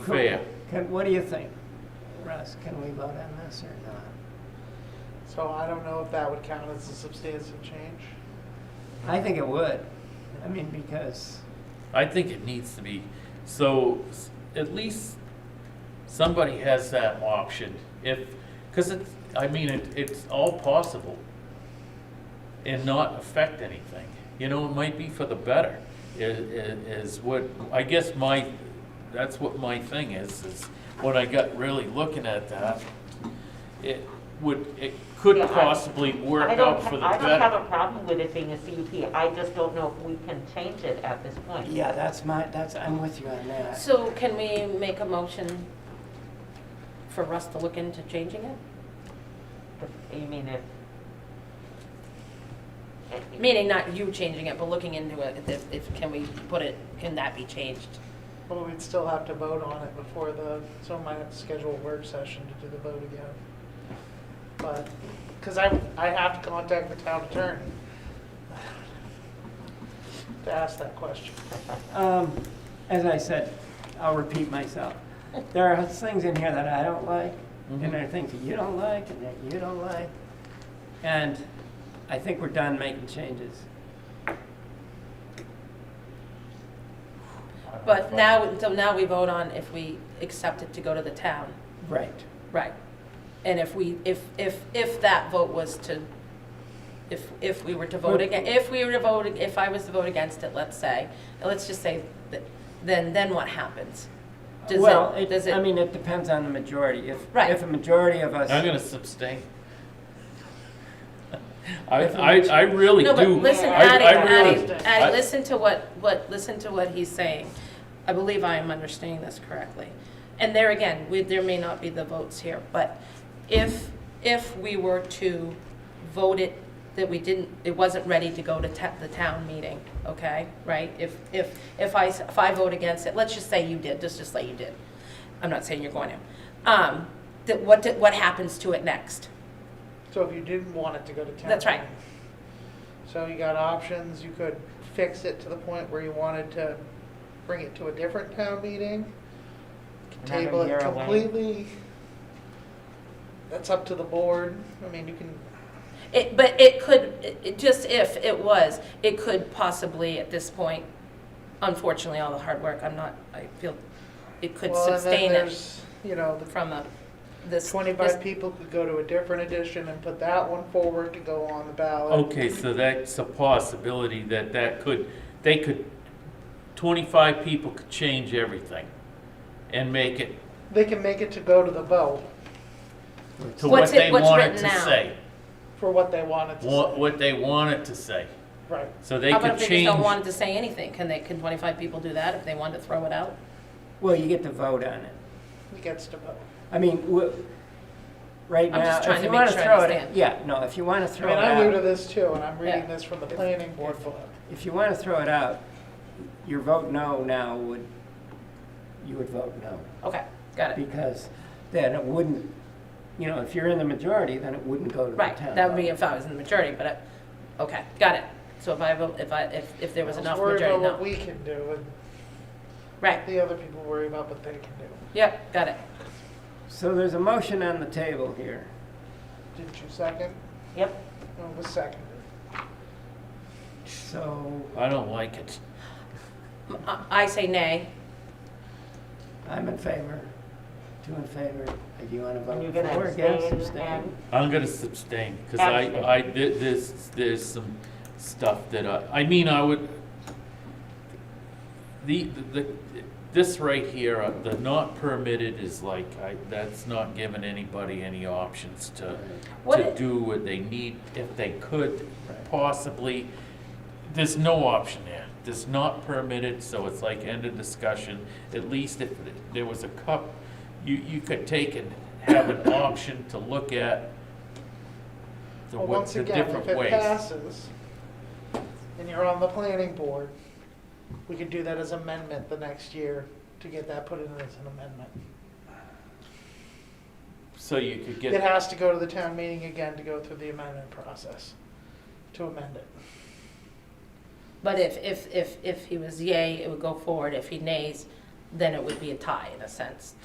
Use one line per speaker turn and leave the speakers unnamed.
Fair.
Can, what do you think, Russ? Can we vote on this or not?
So I don't know if that would count as a substantive change.
I think it would. I mean, because,
I think it needs to be, so s- at least somebody has that option if, because it's, I mean, it, it's all possible and not affect anything. You know, it might be for the better i- i- is what, I guess my, that's what my thing is, is when I got really looking at that, it would, it could
Yeah, I-
possibly work
I don't
out
ha-
for the
I don't have
better.
a problem with it being a CUP, I just don't know if we can change it at this point.
yeah, that's my, that's, I'm with you on that.
So can we make a motion for Russ to look into changing it?
If- You mean if? if-
Meaning not you changing it, but looking into it, if, if, can we put it, can that be changed?
But we'd still have to vote on it before the, so we might have to schedule a work session to do the vote again. But, because I, I have to contact the town attorney to ask that question.
Um, as I said, I'll repeat myself. There are things in here that I don't like,
Mm-hmm.
and there are things that you don't like, and that you don't like. And I think we're done making changes.
But now, so now we vote on if we accept it to go to the town.
Right.
Right. And if we, if, if, if that vote was to, if, if we were to vote again, if we were to vote, if I was to vote against it, let's say, let's just say, th- then, then what happens? Does it-
Well,
does
it,
it-
I mean, it depends on the majority. If,
Right.
if a majority of us.
I'm gonna abstain. I,
If we-
I, I really
No, but
do.
listen,
I-
Addie,
I really-
Addie, Addie,
I-
listen to what, what, listen to what he's saying. I believe I am understanding this correctly. And there again, we, there may not be the votes here, but if, if we were to vote it, that we didn't, it wasn't ready to go to ta- the town meeting, okay, right? If, if, if I, s- if I vote against it, let's just say you did, let's just say you did. I'm not saying you're going to. Um, that what, did- what happens to it next?
So if you didn't want it to go to town.
That's right.
So you got options, you could fix it to the point where you wanted to bring it to a different town meeting,
Another
table
year
it
away.
completely. That's up to the board, I mean, you can,
It, but it could, it- it- just if it was, it could possibly, at this point, unfortunately, all the hard work, I'm not, I feel, it could
well, and then
sustain it
there's, you know, the
from a, this. this-
Twenty-five people could go to a different edition and put that one forward to go on the ballot.
Okay, so that's a possibility that that could, they could, twenty-five people could change everything and make it
They can make it to go to the vote
to what
What's it-
they
what's
want it
written
to
now?
say.
for what they wanted to
What,
say.
what they want it to say.
Right.
So they
How about
could
if they just don't want
change,
it to say anything? Can they, can twenty-five people do that if they wanted to throw it out?
Well, you get to vote on it.
He gets to vote.
I mean, w- right
I'm
now,
just trying
if
to
you
make
want to
sure I
throw it,
understand.
yeah, no, if you want to
I
throw
mean, I'm new to
it out,
this too, and I'm reading
Oh, Yeah.
this from the planning board book.
if you want to throw it out, your vote no now would, you would vote no.
Okay, got it.
Because then it wouldn't, you know, if you're in the majority, then it wouldn't go to the
Right,
town.
that would be
vote.
if I was in the majority, but, I- okay, got it. So if I vote, if I, if, if there was
Let's
enough
worry
majority,
about what we
no.
can do, and
Right,
the other people worry about what they can do.
yep, got it.
So there's a motion on the table here.
Didn't you second?
Yep,
No, it was seconded.
So
I don't like it.
M- I- I say nay.
I'm in favor, two in favor. If you want to
and you're
vote
gonna
for, against,
abstain
abstain.
and,
I'm gonna abstain, cause I, I, th- there's, there's some stuff that I, I mean, I would, the, the, this right here, uh, the not permitted is like, I, that's not giving anybody any options to,
What
to
it-
do what they need, if they could possibly. There's no option there. It's not permitted, so it's like end of discussion. At least if there was a cup, you, you could take and have an option to look at the,
Well,
wa-
once
the
again,
different
if it
ways.
passes, and you're on the planning board, we could do that as amendment the next year to get that put in as an amendment.
So you could
It
get,
has to go to the town meeting again to go through the amendment process, to amend it.
But if, if, if, if he was yay, it would go forward. If he nays, then it would be a tie in a sense.